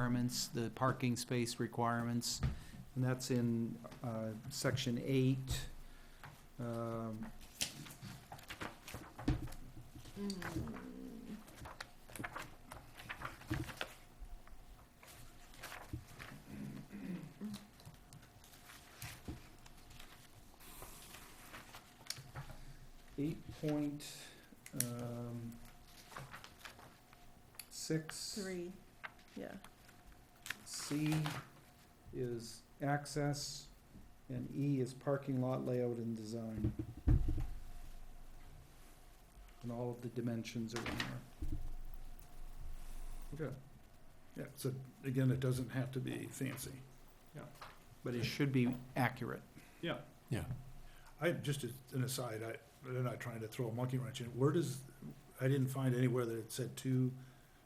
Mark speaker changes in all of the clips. Speaker 1: requirements, the parking space requirements, and that's in uh, section eight. Um,
Speaker 2: Mm,
Speaker 1: Eight point, um, six.
Speaker 2: Three, yeah.
Speaker 1: C is access, and E is parking lot layout and design. And all of the dimensions are in there.
Speaker 3: Okay. Yeah, so again, it doesn't have to be fancy.
Speaker 1: But it should be accurate.
Speaker 3: Yeah.
Speaker 4: Yeah.
Speaker 3: I, just as an aside, I, they're not trying to throw a monkey wrench in, where does, I didn't find anywhere that it said two,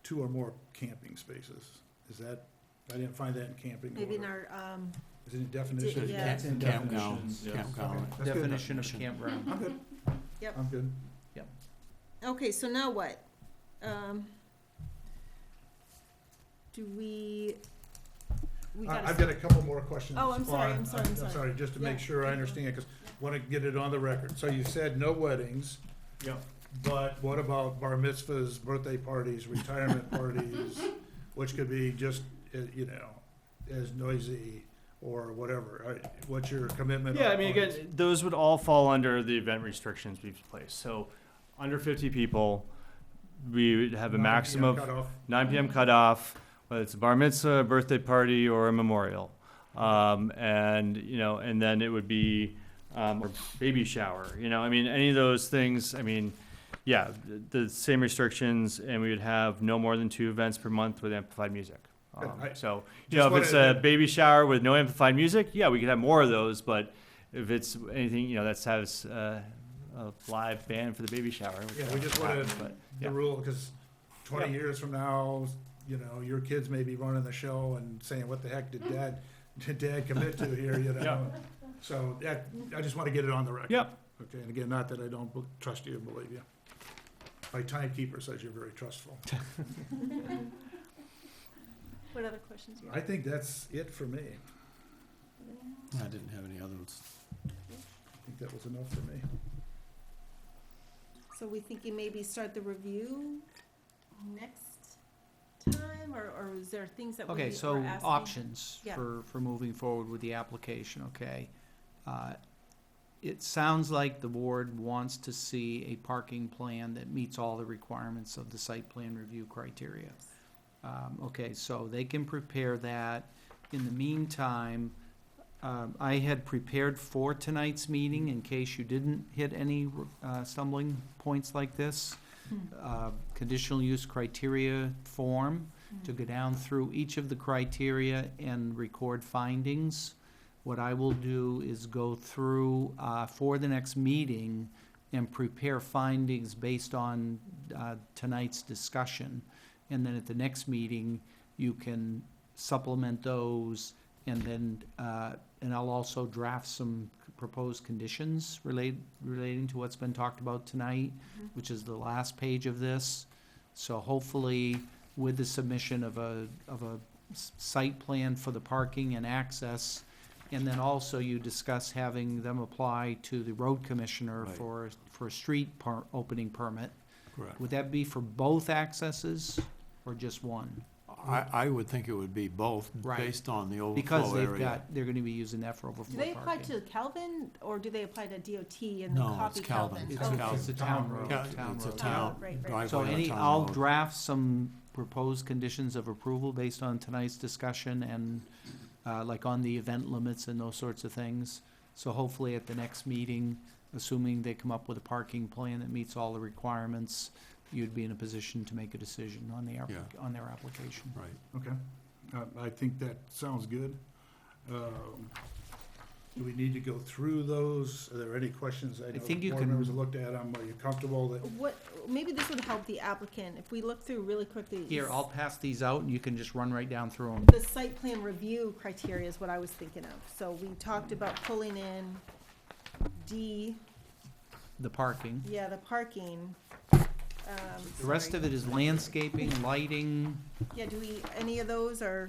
Speaker 3: two or more camping spaces. Is that, I didn't find that in camping.
Speaker 2: Maybe in
Speaker 3: order.
Speaker 2: our, um,
Speaker 3: Is it in definition?
Speaker 2: yeah.
Speaker 1: It's in
Speaker 4: Campground,
Speaker 1: definitions.
Speaker 4: campground.
Speaker 3: That's good
Speaker 1: Definition of
Speaker 4: definition.
Speaker 1: campground.
Speaker 3: I'm good.
Speaker 2: Yep.
Speaker 3: I'm good.
Speaker 2: okay, so now what? Um, do we, we
Speaker 3: I-
Speaker 2: gotta.
Speaker 3: Uh, I've got a couple more questions.
Speaker 2: Oh, I'm sorry,
Speaker 3: on-
Speaker 2: I'm sorry, I'm sorry.
Speaker 3: just to
Speaker 2: Yeah,
Speaker 3: make sure
Speaker 2: keep
Speaker 3: I
Speaker 2: going.
Speaker 3: understand, because want to get it on the record. So you said no weddings.
Speaker 5: Yep.
Speaker 3: But what about bar mitzvahs, birthday parties, retirement parties, which could be just, uh, you know, as noisy or whatever? All right, What's your commitment?
Speaker 5: Yeah,
Speaker 3: on-
Speaker 5: I mean,
Speaker 3: on
Speaker 5: again,
Speaker 3: this?
Speaker 5: those would all fall under the event restrictions we've placed. So, under 50 people, we would have a
Speaker 3: 9
Speaker 5: maximum of
Speaker 3: PM cutoff.
Speaker 5: 9 p.m. cutoff, whether it's a bar mitzvah, a birthday party, or a memorial. Um, and, you know, and then it would be, um, or baby shower, you know, I mean, any of those things, I mean, yeah, the, the same restrictions, and we would have no more than two events per month with amplified music.
Speaker 3: Good,
Speaker 5: Um,
Speaker 3: I-
Speaker 5: so, you
Speaker 3: just
Speaker 5: know, if it's
Speaker 3: wanted
Speaker 5: a
Speaker 3: to-
Speaker 5: baby shower with no amplified music, yeah, we could have more of those, but if it's anything, you know, that's has, uh, a live band for the baby shower. which
Speaker 3: Yeah, we just
Speaker 5: won't happen,
Speaker 3: wanted
Speaker 5: but,
Speaker 3: The
Speaker 5: yeah.
Speaker 3: rule, because twenty
Speaker 5: Yeah.
Speaker 3: years from now, you know, your kids may be running the show and saying, what the heck did dad, did dad commit to here, you know?
Speaker 5: Yeah.
Speaker 3: So that, I just want to get it on the record.
Speaker 5: Yep.
Speaker 3: Okay, and again, not that I don't bel- trust you and believe you. My timekeeper says you're very trustful.
Speaker 2: What other questions? do you
Speaker 3: I
Speaker 2: have?
Speaker 3: think that's it for me.
Speaker 4: I didn't have any other ones.
Speaker 3: I think that was enough for me.
Speaker 2: So we thinking maybe start the review next time, or, or is there things that we
Speaker 1: Okay,
Speaker 2: are
Speaker 1: so
Speaker 2: asking?
Speaker 1: options
Speaker 2: Yeah.
Speaker 1: for, for moving forward with the application, okay? Uh, It sounds like the board wants to see a parking plan that meets all the requirements of the site plan review criteria. Um, okay, so they can prepare that. In the meantime, um, I had prepared for tonight's meeting in case you didn't hit any, uh, stumbling points like this.
Speaker 2: Hmm.
Speaker 1: Uh, conditional use criteria form
Speaker 2: Mm.
Speaker 1: to go down through each of the criteria and record findings. What I will do is go through, uh, for the next meeting and prepare findings based on, uh, tonight's discussion. And then at the next meeting, you can supplement those and then, uh, and I'll also draft some proposed conditions relate, relating to what's been talked about tonight,
Speaker 2: Mhm.
Speaker 1: which is the last page of this. So hopefully, with the submission of a, of a s- site plan for the parking and access. And then also you discuss having them apply to the road commissioner
Speaker 4: Right.
Speaker 1: for, for a street par, opening permit.
Speaker 4: Correct.
Speaker 1: Would that be for both accesses or just one?
Speaker 4: I, I would think it would be both,
Speaker 1: Right.
Speaker 4: based on the
Speaker 1: Because
Speaker 4: overflow
Speaker 1: they've
Speaker 4: area.
Speaker 1: got, they're gonna be using that for overflow
Speaker 2: Do they
Speaker 1: parking.
Speaker 2: apply to Calvin, or do they apply to DOT and
Speaker 4: No,
Speaker 2: then
Speaker 4: it's
Speaker 2: copy Calvin?
Speaker 4: Calvin.
Speaker 1: It's
Speaker 2: Oh,
Speaker 1: a,
Speaker 4: Calvin.
Speaker 1: it's a town road,
Speaker 4: Ca-
Speaker 1: town
Speaker 4: It's a
Speaker 1: road.
Speaker 4: town,
Speaker 2: Right, right.
Speaker 4: driveway
Speaker 1: So
Speaker 4: on a
Speaker 1: any,
Speaker 4: town
Speaker 1: I'll
Speaker 4: road.
Speaker 1: draft some proposed conditions of approval based on tonight's discussion and, uh, like on the event limits and those sorts of things. So hopefully at the next meeting, assuming they come up with a parking plan that meets all the requirements, you'd be in a position to make a decision on the, app-
Speaker 4: Yeah.
Speaker 1: on their application.
Speaker 4: Right.
Speaker 3: Okay, Uh, I think that sounds good. Um, Do we need to go through those? Are there any questions? I know
Speaker 1: think you
Speaker 3: board
Speaker 1: can-
Speaker 3: members have looked at them. Are you comfortable that
Speaker 2: What, maybe this would help the applicant, if we look through really quickly.
Speaker 1: Here,
Speaker 2: s-
Speaker 1: I'll pass these out and you can just run right down through them.
Speaker 2: The site plan review criteria is what I was thinking of, so we talked about pulling in D,
Speaker 1: The parking.
Speaker 2: yeah, the parking. um,
Speaker 1: The rest
Speaker 2: sorry.
Speaker 1: of it is landscaping, lighting.
Speaker 2: Yeah, do we, any of those are?